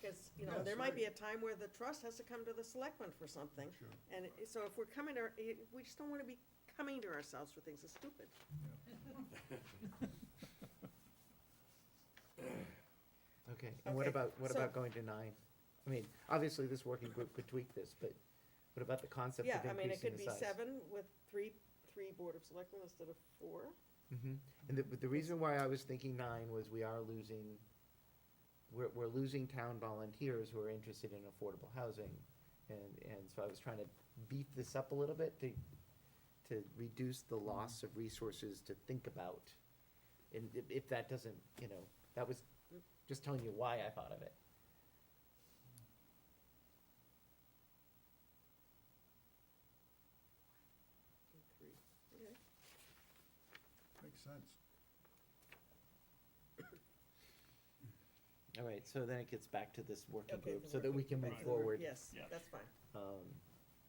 because, you know, That's there might be a right. time where the trust has to come to the selectmen for something. Sure. And it- so if we're coming to, our- it- we just don't want to be coming to ourselves for things that's stupid. Okay, and what Okay, about, what so- about going to nine? I mean, obviously, this working group could tweak this, but what about the concept Yeah, of I mean, it increasing could the be size? seven with three, three board of selectmen instead of four. Mhm. And the, but the reason why I was thinking nine was we are losing, we're, we're losing town volunteers who are interested in affordable housing. And, and so I was trying to beef this up a little bit to, to reduce the loss of resources to think about. And if, if that doesn't, you know, that was Mm. just telling you why I thought of it. And Three, okay. Makes sense. All right, so then it gets back to this working Okay, group the so that we working- can move right. forward. Yes, Yeah. that's fine. Um,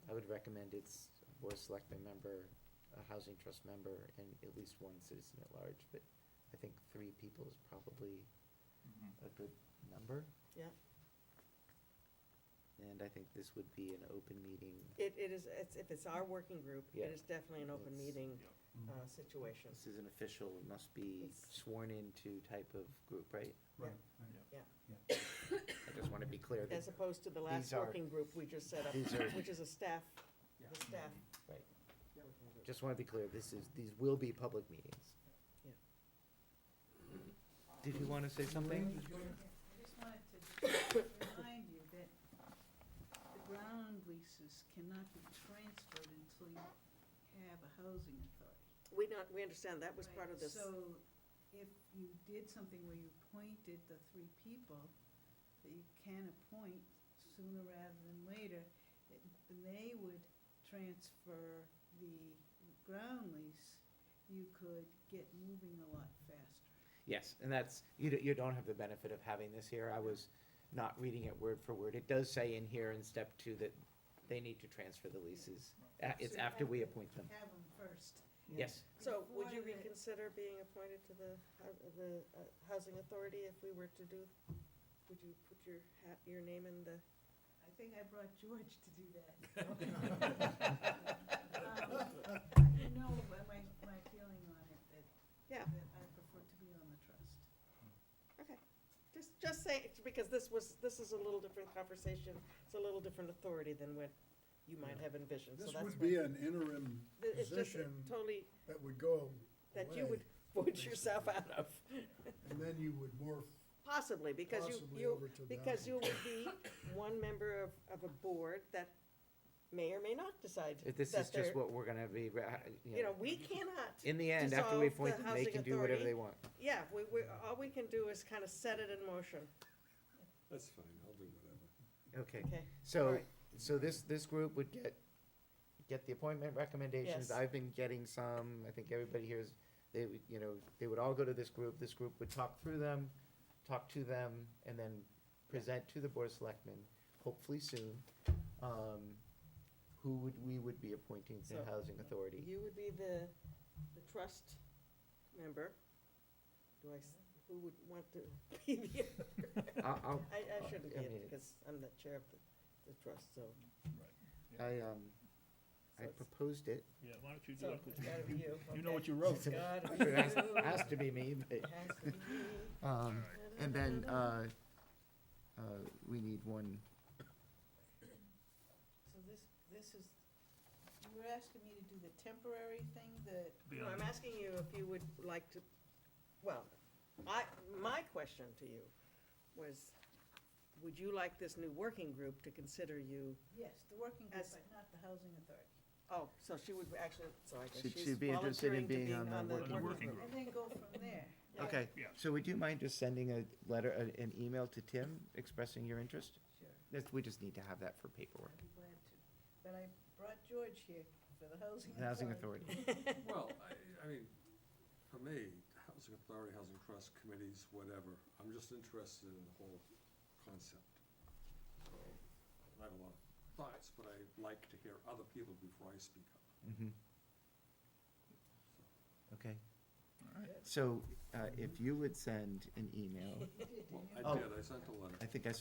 I would recommend it's a board of selectmen member, a housing trust member, and at least one citizen at large, but I think three people is probably Mm-hmm. a good number. Yeah. And I think this would be an open meeting It, it is, it's, if it's our working group, Yeah. it is definitely an open It's- meeting, Mhm. uh, situation. This is an official, it must be It's- sworn into type of group, right? Mm-hmm. Right, Yeah. right, I just want to be clear. that- As opposed to the last These are- working group we just set up, these are- which is a staff, Yeah. the staff. Right. working group. Just want to be clear, this is, these will be public meetings. Yeah. Did you want to say something? I just wanted to remind you that the ground leases cannot be transferred until you have a housing authority. We not, we understand, that was part of Right, this. So if you did something where you appointed the three people that you can appoint sooner rather than later, it- they would transfer the ground lease, you could get moving a lot faster. Yes, and that's, you, don't- you don't have the benefit of having this here. I was not reading it word for word. It does say in here in step two that they need to transfer the leases. A- It's So you after have we to appoint them. Have them first. Yes, So would you Before the- reconsider being appointed to the, hou- the uh, Housing Authority if we were to do, would you put your hat, your name in the? I think I brought George to do that. Um, You know, my- my, my feeling on it, that, Yeah, that I prefer to be on the trust. okay. Just, just say, it, because this was, this is a little different conversation. It's a little different authority than what you might have envisioned, so This that's. would why- be an interim Th- It's just position totally, that would go that you would away, vote yourself out of. And then you would morph Possibly, because you, Possibly over you, to the because other. you would be one member of, of a board that may or may not decide. If this that is just they're- what we're gonna be, ra- You know, we cannot. In the end, after we dissolve the appoint them, they housing can do whatever they authority. want. Yeah, we, we, all we can do is kind of set it in motion, That's fine, I'll do whatever. Okay. okay? All So, right. so this, this group would get, get the appointment recommendations, Yes. I've been getting some, I think everybody here's, they would, you know, they would all go to this group, this group would talk through them, talk to them, and then present to the board of selectmen, hopefully soon, um, who would, we would be appointing to the So, housing authority. You would be the, the trust member. Do I, s- who would want to be the? I'll- I'll- I, I shouldn't be Uh, I it mean- because I'm the chair of the, the trust, so. I, um, so I it's- proposed it, Yeah, why don't you do So it? it's gotta be you. You know okay. what you wrote. It's gotta It be has you. has to be me, It but, has to be. um, and then, uh, uh, we need one So this, this is, you were asking me to do the temporary thing, the, Be No, on I'm it. asking you if you would like to, well, I, my question to you was, would you like this new working group to consider you? yes, the working group, As- but not the housing authority. Oh, so she would actually, so I guess She'd- she's she'd be interested volunteering to in being be on the on the working working group. group. And then go from there. Yeah. Okay, Yeah. so would you mind just sending a letter, a- an email to Tim expressing your interest? Sure. That's, we just need to have that for paperwork. I'd be glad to. But I brought George here for the housing The Housing Authority. Well, I, I mean, for me, Housing Authority, Housing Trust, committees, whatever, I'm just interested in the whole concept. I have a lot of thoughts, but I like to hear other people before I speak up. Mhm. Okay, All right. so uh, if you would send an email, Authority. Well, Oh. I did, I sent a letter. I think I